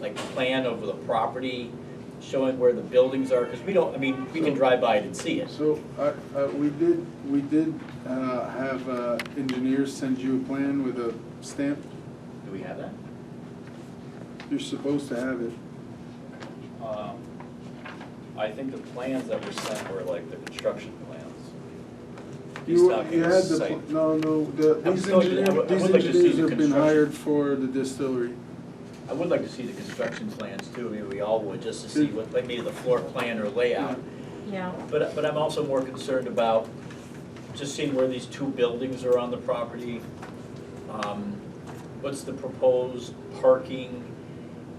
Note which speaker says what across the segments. Speaker 1: like plan of the property, showing where the buildings are, because we don't, I mean, we can drive by it and see it.
Speaker 2: So, uh, uh, we did, we did uh, have uh, engineers send you a plan with a stamp.
Speaker 1: Do we have that?
Speaker 2: You're supposed to have it.
Speaker 1: Um, I think the plans that were sent were like the construction plans. He's
Speaker 2: You,
Speaker 1: talking
Speaker 2: you had the,
Speaker 1: site.
Speaker 2: pl- no, no, the,
Speaker 1: I'm
Speaker 2: these
Speaker 1: still- I would-
Speaker 2: engineers,
Speaker 1: I would
Speaker 2: these
Speaker 1: like to see
Speaker 2: engineers
Speaker 1: the
Speaker 2: have been
Speaker 1: construction.
Speaker 2: hired for the distillery.
Speaker 1: I would like to see the construction plans too, maybe we all would, just to see what, like maybe the floor plan or layout.
Speaker 3: Yeah,
Speaker 1: But, but I'm also more concerned about just seeing where these two buildings are on the property. Um, What's the proposed parking?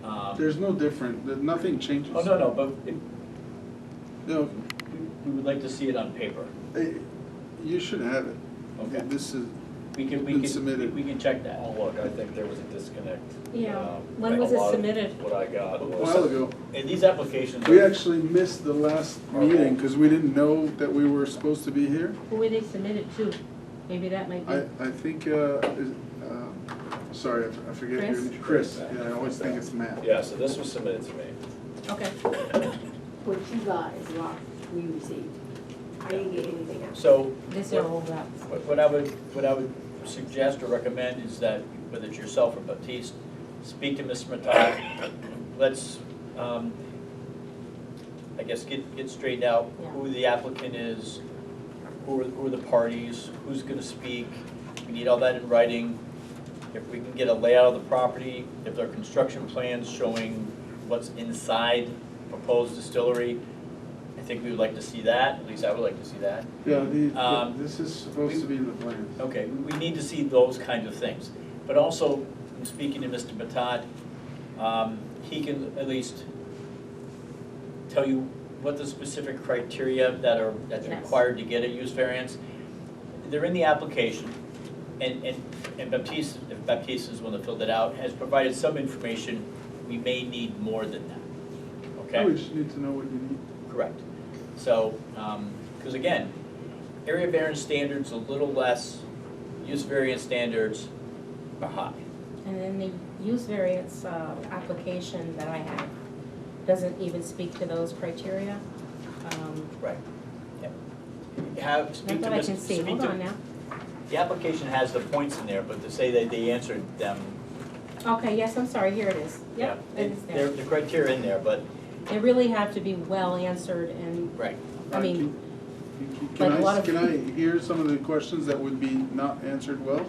Speaker 1: um,
Speaker 2: There's no different, there- nothing changes.
Speaker 1: Oh, no, no, but it-
Speaker 2: No,
Speaker 1: we would like to see it on paper.
Speaker 2: eh, you should have it.
Speaker 1: Okay.
Speaker 2: This is,
Speaker 1: We can, we
Speaker 2: Been
Speaker 1: can,
Speaker 2: submitted.
Speaker 1: we can check that.
Speaker 4: Oh, look, I think there was a disconnect.
Speaker 3: Yeah.
Speaker 4: Um,
Speaker 3: When
Speaker 4: a
Speaker 3: was it
Speaker 4: lot of
Speaker 3: submitted?
Speaker 4: What I
Speaker 2: a
Speaker 4: got
Speaker 2: while
Speaker 4: was,
Speaker 2: ago.
Speaker 1: And these applications.
Speaker 2: We
Speaker 1: are-
Speaker 2: actually missed the last meeting because we didn't know that we were supposed to be here.
Speaker 3: who were they submitted to? Maybe that might
Speaker 2: I,
Speaker 3: be,
Speaker 2: I think, uh, is, uh, sorry, I f- I forget your
Speaker 3: Chris?
Speaker 2: name. Chris, yeah, I always think it's Matt.
Speaker 4: yeah, so this was submitted to me.
Speaker 3: okay.
Speaker 5: what you got is what we received. I didn't get anything else.
Speaker 1: So
Speaker 3: This are all that.
Speaker 1: what what I would, what I would suggest or recommend is that, whether it's yourself or Baptiste, speak to Ms. Matai. Let's, um, I guess, get, get straightened out
Speaker 3: Yeah.
Speaker 1: who the applicant is, who are, who are the parties, who's gonna speak. We need all that in writing. If we can get a layout of the property, if there are construction plans showing what's inside proposed distillery, I think we would like to see that, at least I would like to see that.
Speaker 2: Yeah, the- the,
Speaker 1: Um,
Speaker 2: this is supposed to be in the plans.
Speaker 1: Okay, we need to see those kinds of things. But also, in speaking to Mr. Batat, um, he can at least tell you what the specific criteria that are, that's
Speaker 3: Yes.
Speaker 1: required to get a use variance. They're in the application, and, and, and Baptiste, if Baptiste is the one that filled it out, has provided some information. We may need more than that, okay?
Speaker 2: We just need to know what you need.
Speaker 1: Correct. So, because again, area variance standards a little less, use variance standards are high.
Speaker 3: And then the use variance uh, application that I have doesn't even speak to those criteria. Um,
Speaker 1: Right. Have,
Speaker 3: Not
Speaker 1: speak to
Speaker 3: that I
Speaker 1: Ms.
Speaker 3: can see,
Speaker 1: speak
Speaker 3: hold
Speaker 1: to-
Speaker 3: on now.
Speaker 1: The application has the points in there, but to say that they answered them,
Speaker 3: Okay, yes, I'm sorry, here it is.
Speaker 1: yeah.
Speaker 3: Yep,
Speaker 1: they-
Speaker 3: it is
Speaker 1: They're,
Speaker 3: there.
Speaker 1: the criteria in there, but.
Speaker 3: They really have to be well answered and,
Speaker 1: Right.
Speaker 3: I mean,
Speaker 2: Can-
Speaker 3: like
Speaker 2: Can
Speaker 3: a lot
Speaker 2: I,
Speaker 3: of-
Speaker 2: can I hear some of the questions that would be not answered well?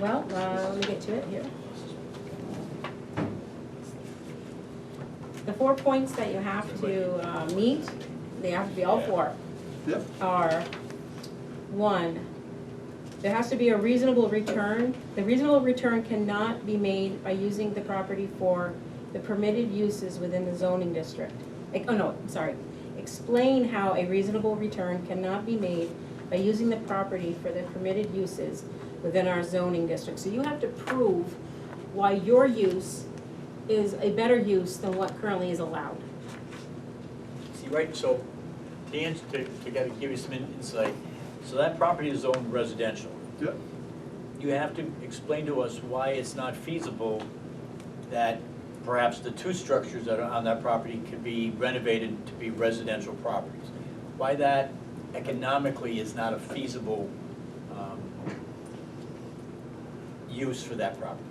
Speaker 3: well, uh, let me get to it here. The four points that you have to uh, meet, they have to be all
Speaker 1: Yeah.
Speaker 3: four.
Speaker 2: Yep.
Speaker 3: are, one, there has to be a reasonable return. The reasonable return cannot be made by using the property for the permitted uses within the zoning district. Like, oh no, I'm sorry. Explain how a reasonable return cannot be made by using the property for the permitted uses within our zoning district. So you have to prove why your use is a better use than what currently is allowed.
Speaker 1: See, right, so to answer, to, to kind of give you some in- insight, so that property is zoned residential.
Speaker 2: Yep.
Speaker 1: You have to explain to us why it's not feasible that perhaps the two structures that are on that property could be renovated to be residential properties. Why that economically is not a feasible, um, use for that property,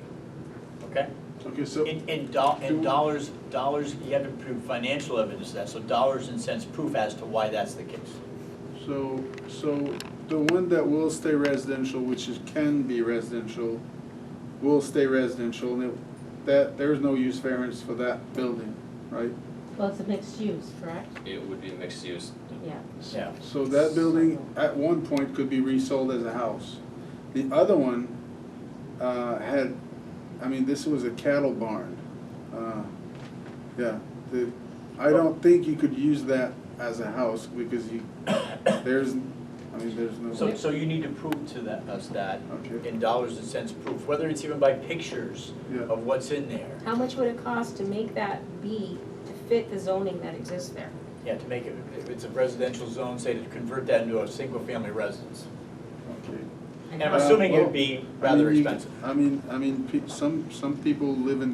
Speaker 1: okay?
Speaker 2: Okay, so,
Speaker 1: In, in do,
Speaker 2: Do
Speaker 1: in
Speaker 2: we-
Speaker 1: dollars, dollars, you have to prove financial evidence of that, so dollars and cents proof as to why that's the case.
Speaker 2: so, so the one that will stay residential, which is, can be residential, will stay residential, and it, that, there's no use variance for that building, right?
Speaker 3: Well, it's a mixed use, correct?
Speaker 6: It would be mixed use.
Speaker 3: Yeah.
Speaker 1: Yeah.
Speaker 2: So that building at one point could be resold as a house. The other one uh, had, I mean, this was a cattle barn. Uh, Yeah, the, I don't think you could use that as a house because you, there's, I mean, there's no.
Speaker 1: So, so you need to prove to that, us that,
Speaker 2: Okay,
Speaker 1: in dollars and cents proof, whether it's even by pictures
Speaker 2: yeah,
Speaker 1: of what's in there,
Speaker 3: How much would it cost to make that be, to fit the zoning that exists there?
Speaker 1: yeah, to make it, if it's a residential zone, say to convert that into a single-family residence.
Speaker 2: okay.
Speaker 1: And I'm
Speaker 2: Uh,
Speaker 1: assuming
Speaker 2: well,
Speaker 1: it'd be
Speaker 2: I
Speaker 1: rather
Speaker 2: mean, you-
Speaker 1: expensive.
Speaker 2: I mean, I mean, pe- some, some people live in